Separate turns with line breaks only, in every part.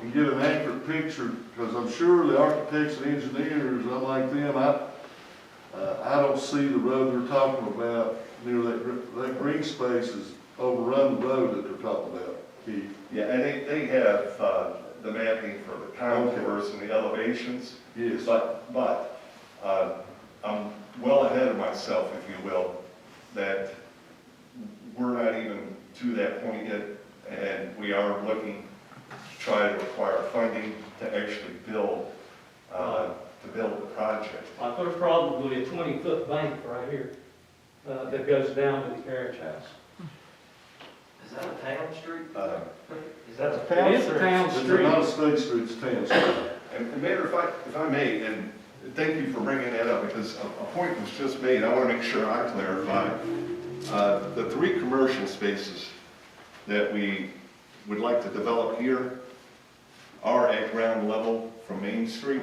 and get an accurate picture, because I'm sure the architects and engineers, unlike them, I, uh, I don't see the road they're talking about near that, gr- that green space is overrun the road that they're talking about, Keith.
Yeah, and they, they have, uh, the mapping for the contours and the elevations,
Yes,
but, but, uh, I'm well ahead of myself, if you will, that we're not even to that point yet, and we are looking to try to acquire funding to actually build, uh, to build the project.
Like, there's probably a twenty-foot bank right here, uh, that goes down to the carriage house.
Is that a town street?
Uh,
Is that a?
It is a town
it's not
street.
a state street, it's a town street.
And and Mayor, if I, if I may, and thank you for bringing that up, because a, a point was just made, I want to make sure I clarify. Uh, The three commercial spaces that we would like to develop here are at ground level from Main Street,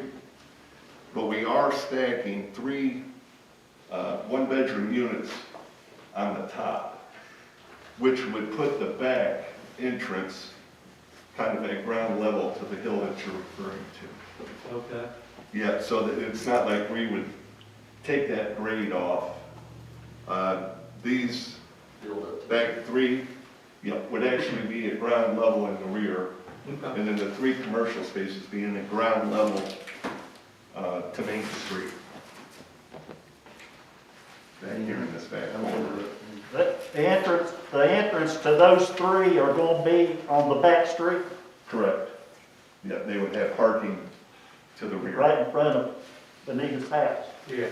but we are stacking three, uh, one-bedroom units on the top, which would put the back entrance kind of at ground level to the hill that you're referring to.
Okay.
Yeah, so that it's not like we would take that grade off. Uh, These back three, yeah, would actually be at ground level in the rear,
Okay.
and then the three commercial spaces being at ground level uh, to Main Street. Back here in this back corner.
The the entrance, the entrance to those three are gonna be on the back street,
Correct. Yeah, they would have parking to the rear.
right in front of Benita's house.
Yeah.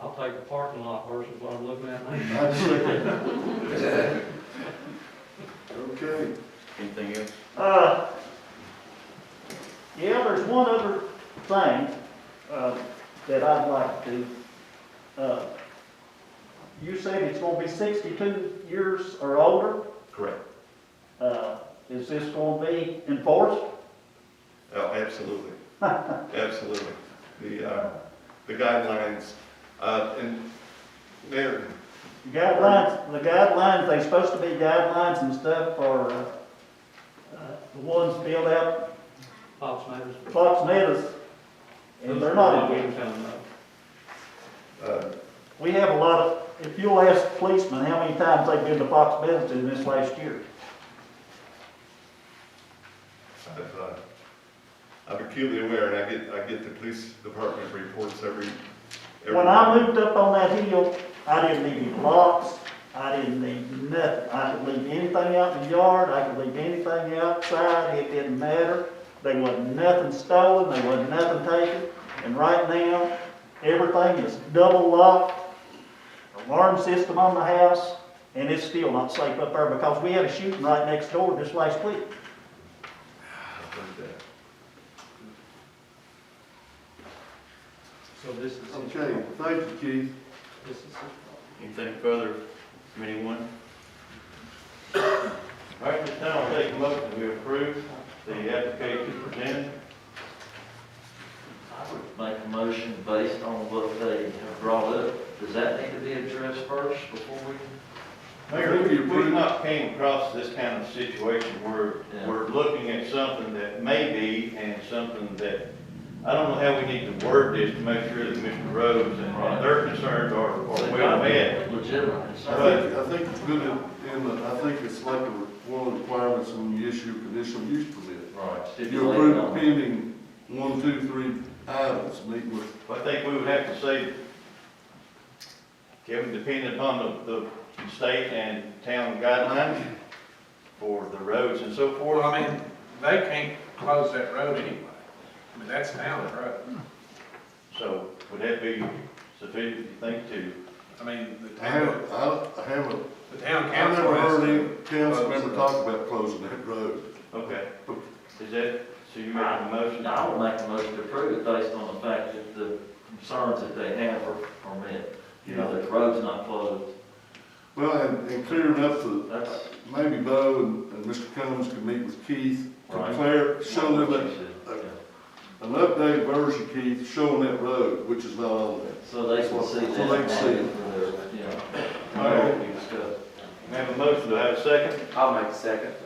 I'll take the parking lot versus what I'm looking at now.
I'd say. Okay.
Anything else?
Uh, yeah, there's one other thing, uh, that I'd like to, uh, you said it's gonna be sixty-two years or older,
Correct.
uh, is this gonna be enforced?
Oh, absolutely. Absolutely. The, uh, the guidelines, uh, and Mayor,
The Guidelines, the guidelines, they supposed to be guidelines and stuff for, uh, uh, the ones filled out
Pops Meadows.
Fox Meadows, and they're not in here.
Williamstown, though.
uh,
We have a lot of, if you'll ask policemen how many times they've been to Fox Meadows in this last year.
I've, uh, I'm acutely aware, and I get, I get the police department reports every, every.
When I moved up on that hill, I didn't leave any locks, I didn't leave nothing. I could leave anything out in the yard, I could leave anything outside, it didn't matter. There wasn't nothing stolen, there wasn't nothing taken, and right now, everything is double locked. Alarm system on the house, and it's still not safe up there because we had a shooting right next door just last week.
I've heard that.
So this is. his
Okay,
problem.
thank you, Keith.
This is his problem.
Anything further from anyone? All right, this time I'll take a motion to approve the application presented.
I would make a motion based on what they have brought up. Does that need to be addressed first before we?
Mayor, we approve-
We've not came across this kind of situation where
Yeah.
we're looking at something that may be and something that, I don't know how we need to word this to make sure that Mr. Rhodes and-
Right.
and their concerns are, are well met.
Legitimate
I
concern.
think, I think it's good in, in the- I think it's like a re- one of the requirements when you issue a conditional use permit.
Right.
You approve pending one, two, three items, meet with,
I think we would have to say, Kevin, depending upon the, the state and town guidelines for the roads and so
Well,
forth.
I mean, they can't close that road anyway. I mean, that's down the road.
So would that be sufficient, you think, to,
I mean, the
I haven't,
town,
I I haven't,
the town
I've
council.
never
has-
heard any council member talk about closing that road.
okay, is that, so you making a motion?
No, I would make a motion to approve it based on the fact that the concerns that they have are, are met. You know, that the road's not closed.
Well, and, and clearing up the,
That's
maybe Bo and, and Mr. Combs can meet with Keith to
Right.
clear, show
what
them
she
that-
said. Yeah.
an updated version, Keith, showing that road, which is not on there.
So they can see
So
that. uh,
they can see it.
Yeah.
All right.
We discussed.
May I have a motion, do I have a second?
I'll make a second.